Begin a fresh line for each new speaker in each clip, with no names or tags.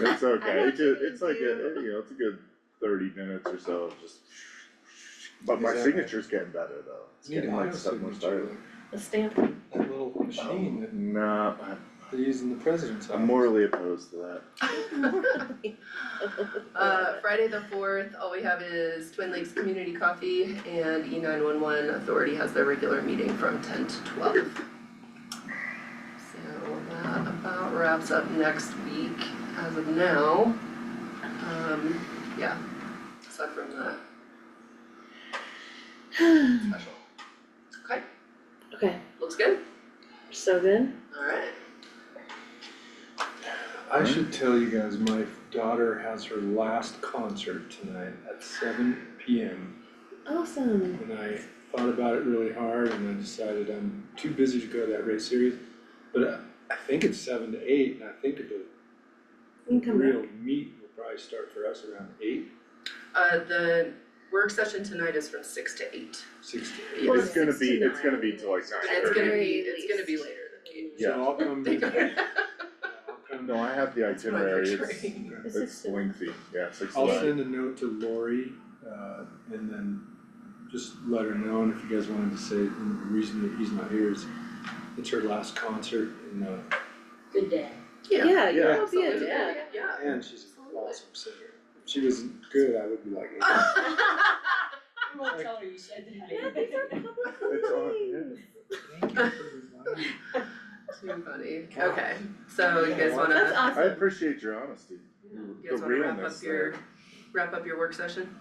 It's okay,
not
it's just, it's
sure
like, a-
you.
you know, it's a good thirty minutes or so of just. But my
Exactly.
signature's getting better though, it's
Need
getting
a
like
higher
stuff more
signature,
started.
The stamp,
that little machine that
No, I'm-
they use in the president's
I'm
office.
morally opposed to that.
Uh, Friday the fourth, all we have is Twin Lakes Community Coffee and E nine one one Authority has their regular meeting from ten to twelve. So that about wraps up next week as of now. Um, yeah, aside from that. Special. Okay,
okay,
looks good,
so good.
alright.
I
Hmm?
should tell you guys, my daughter has her last concert tonight at seven P M.
Awesome.
And I thought about it really hard and I decided I'm too busy to go to that race series. But I, I think it's seven to eight and I think the
You can come back.
real meet will probably start for us around eight,
Uh, the work session tonight is from six to eight.
six to eight.
Yeah.
It's gonna
six
be,
to
it's gonna
nine.
be till like
And
nine
It's gonna
thirty.
be,
Very
it's gonna be
least.
later than eight.
So I'll come
They
to
go-
that. I'll come to
No, I have the
That's what you're
itinerary, it's,
saying.
It's
it's
six to-
lengthy, yeah, six to
I'll
nine.
send a note to Lori, uh, and then just let her know, and if you guys wanted to say, you know, the reason that he's not here is it's her last concert, and, uh,
Good day.
Yeah.
Yeah, you
Yeah.
will be a dad.
Yeah.
and she's an awesome singer. If she was good, I would be like, "Yeah."
We won't tell her you said that.
Yeah, these are public
It's on,
meetings.
thank you for reminding me."
Too funny.
God.
Okay, so you guys
That's
wanna,
I
awesome.
appreciate your honesty,
you
the
guys wanna wrap
realness
up
there.
your, wrap up your work session?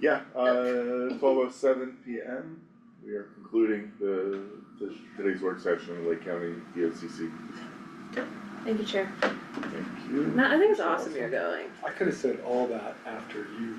Yeah, uh, twelve oh seven P M, we are concluding the, the, today's work session in Lake County D O C C.
Thank you, Chair.
Thank you.
No, I think it's awesome you're going.
I could have said all that after you